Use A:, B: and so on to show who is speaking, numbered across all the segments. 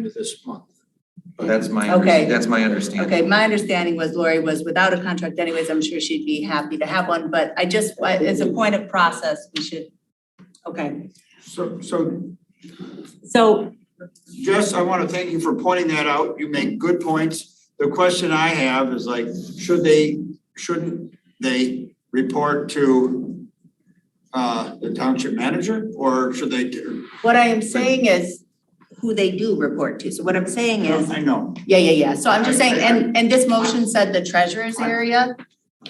A: end of this month.
B: But that's my,
C: Okay.
B: under- that's my understanding.
C: Okay, my understanding was Lori was without a contract anyways, I'm sure she'd be happy to have one, but I just, it's a point of process, we should, okay.
D: So, so
C: So,
D: Jess, I want to thank you for pointing that out. You make good points. The question I have is like, should they, shouldn't they report to uh, the township manager or should they do?
C: what I am saying is who they do report to, so what I'm saying is,
D: I know.
C: yeah, yeah, yeah, so I'm just saying, and, and this motion said the treasurer's area,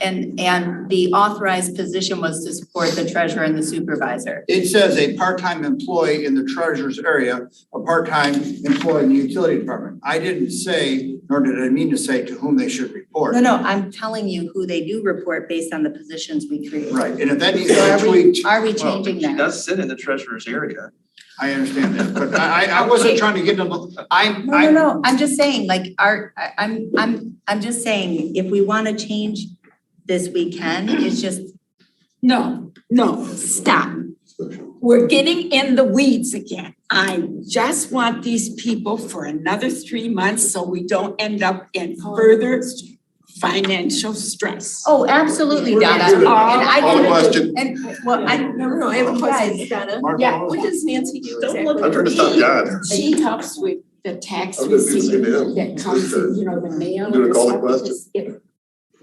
C: and, and the authorized position was to support the treasurer and the supervisor.
D: It says a part-time employee in the treasurer's area, a part-time employee in the utility department. I didn't say, nor did I mean to say to whom they should report.
C: No, no, I'm telling you who they do report based on the positions we create.
D: Right, and if that needs
C: So
D: to be
C: are we,
D: tweaked,
C: are we
B: Well,
C: changing
B: She
C: that?
B: does sit in the treasurer's area.
D: I understand that, but I, I I wasn't
C: Okay.
D: trying to get them, I'm,
C: No, no,
D: I'm
C: no, I'm just saying, like, our, I, I'm, I'm, I'm just saying, if we wanna change this, we can, it's just,
E: No, no, stop. We're getting in the weeds again. I just want these people for another three months so we don't end up in further financial stress.
C: oh, absolutely,
D: We're
C: Donna,
D: gonna
C: and
D: do it.
C: I
D: Call the question.
C: can, and, well, I,
F: No, no, I have a question, Donna.
D: Mark,
E: Yeah,
D: hold
F: What
D: on.
F: does Nancy do
E: Don't look
F: exactly?
E: I'm trying to stop
G: John.
E: She helps with the tax
G: I was gonna say
E: receipt
G: to him,
E: that comes in, you know, the mail
G: Do
E: and
G: it, call the
E: stuff.
G: question.
E: It-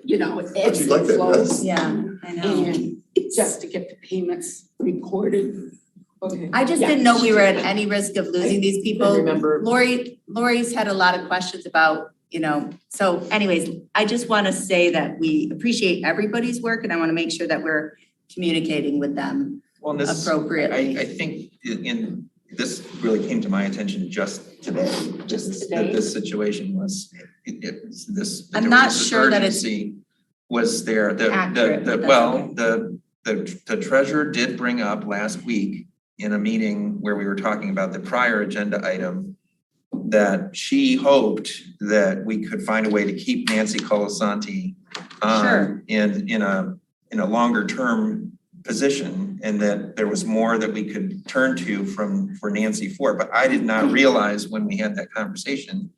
E: You know, it ebbs
G: like
E: and
G: that, huh?
E: flows.
C: yeah, I know.
E: And just to get the payments recorded.
F: Okay.
C: I just didn't know we were at any risk of losing these
F: I
C: people.
F: remember.
C: Lori, Lori's had a lot of questions about, you know, so anyways, I just wanna say that we appreciate everybody's work, and I wanna make sure that we're communicating with them
B: Well, and this, I,
C: appropriately.
B: I think in- in, this really came to my attention just today, just that
E: Today?
B: this situation was, it, it's this. that
C: I'm
B: there
C: not
B: was this
C: sure that it's
B: urgency Was there, the,
C: accurate,
B: the, the,
C: but that's
B: well,
C: okay.
B: the, the, the treasurer did bring up last week in a meeting where we were talking about the prior agenda item that she hoped that we could find a way to keep Nancy Colasanti
C: Sure.
B: on in, in a, in a longer term position and that there was more that we could turn to from, for Nancy for. But I did not realize when we had that conversation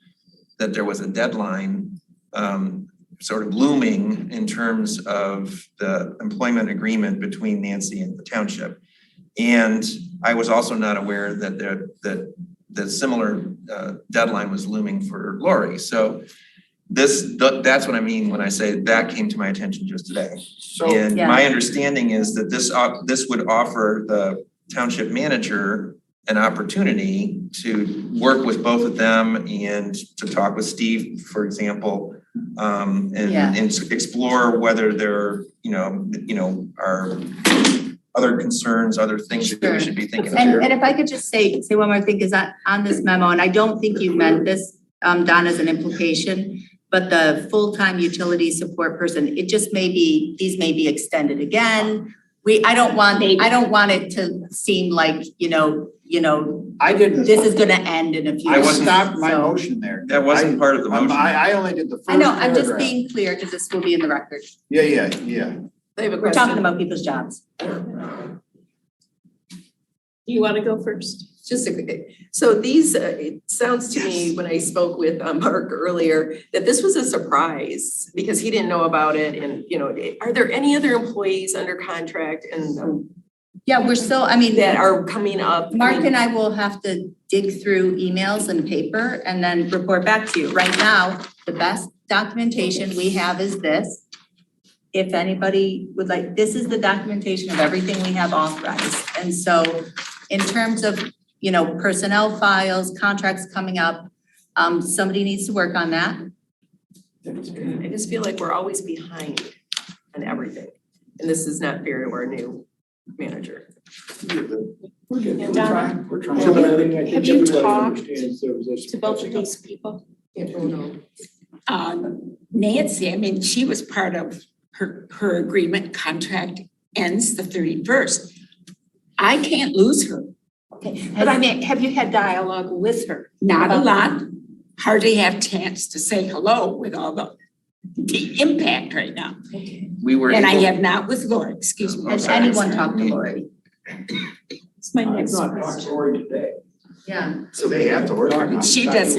B: that there was a deadline um, sort of looming in terms of the employment agreement between Nancy and the township. And I was also not aware that there, that, that similar uh, deadline was looming for Lori. So this, th- that's what I mean when I say that came to my attention just today.
D: So,
B: And my understanding is that this, op- this would offer the township manager an opportunity to work with both of them and to talk with Steve, for example. Um, and,
C: Yeah.
B: and to explore whether there, you know, you know, are other concerns, other things that
C: Sure.
B: we should be thinking about.
C: And, and if I could just say, say one more thing, is that on this memo, and I don't think you meant this, um, Don, as an implication, but the full-time utility support person, it just may be, these may be extended again. We, I don't want, I don't want it to seem like, you know, you know,
D: I didn't,
C: this is gonna end in a few.
D: I
C: years,
D: stopped my
C: so-
D: motion there.
B: That wasn't part of the
D: I'm-
B: motion.
D: I, I only did the first
C: I know, I'm just
D: paragraph.
C: being clear, because this will be in the record.
D: Yeah, yeah, yeah.
F: I have a
C: We're talking
F: question.
C: about people's jobs.
F: Do you want to go first? Just a quick, so these, uh, it sounds to me, when I spoke with um, Mark earlier, that this was a surprise because he didn't know about it and, you know, are there any other employees under contract and um,
C: Yeah, we're still, I mean.
F: that are coming up? I
C: Mark
F: mean,
C: and I will have to dig through emails and paper and then report back to you. Right now, the best documentation we have is this. If anybody would like, this is the documentation of everything we have authorized. And so in terms of, you know, personnel files, contracts coming up, um, somebody needs to work on that.
F: I just feel like we're always behind on everything. And this is not fair to our new manager.
H: We're good.
E: We're Donna.
D: We're
H: So, but I
D: trying.
H: mean, I
E: Have
H: think
E: you
H: everybody
E: talked
H: understands there was this.
E: To both of these people.
F: Can't vote on.
E: Um, Nancy, I mean, she was part of her, her agreement contract ends the thirty-first. I can't lose her. But I mean, have you had dialogue with her? Not a lot, hardly have chance to say hello with all the, the impact right now.
B: We were
E: And I
B: able,
E: have not with Laura, excuse me.
C: Has
B: Okay.
C: anyone talked to Lori?
E: It's my
H: I'm
E: next
H: not
E: question.
H: talking to Lori today.
I: Yeah.
C: So they have to work. on it.
D: She does